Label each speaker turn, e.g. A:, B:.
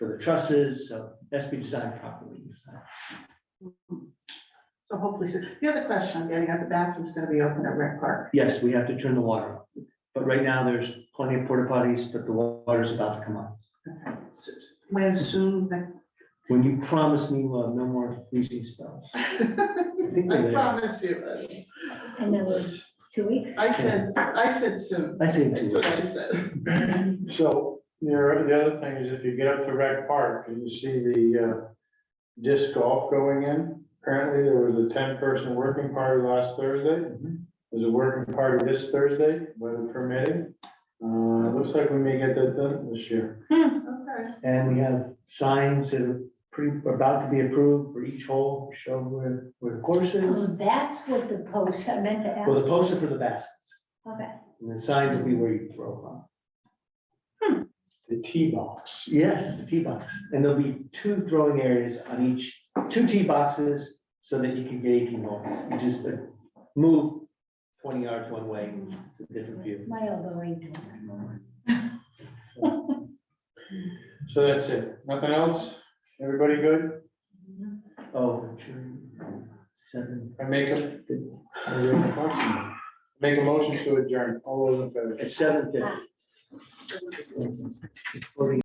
A: trusses, so that's been designed properly. so.
B: So hopefully, so the other question I'm getting at, the bathroom's gonna be open at rec park.
A: Yes, we have to turn the water off, but right now there's plenty of porta potties, but the water's about to come on.
B: So When soon, then-
A: When you promise me, uh, no more freezing spells.
B: I
A: I think they're there.
B: promise you.
C: And that was two weeks.
B: I said, I said soon.
A: I think.
B: That's what I said.
D: So, there, the other thing is if you get up to Rec Park and you see the uh, disc golf going in, apparently there was a ten-person working party last Thursday.
A: Mhm.
D: There's a working party this Thursday, weather permitting. Uh, it looks like we may get that done this year.
B: Okay.
A: And we have signs that are pretty, about to be approved for each hole, show where, where the course is.
C: Oh, that's what the post, I meant to
A: Well, the
C: ask.
A: posts are for the baskets,
C: Okay.
A: and the signs will be where you throw from.
D: The tee box.
A: Yes, the tee box, and there'll be two throwing areas on each, two tee boxes, so that you can get eighteen holes. You just uh, move twenty yards one way, it's a different view.
C: My elbow ain't doing
D: So that's it. Nothing else? Everybody good?
C: it.
A: Oh, sure. seven,
D: I make a, I do have a question. make a motion to adjourn. All those in favor?
A: at seven fifty.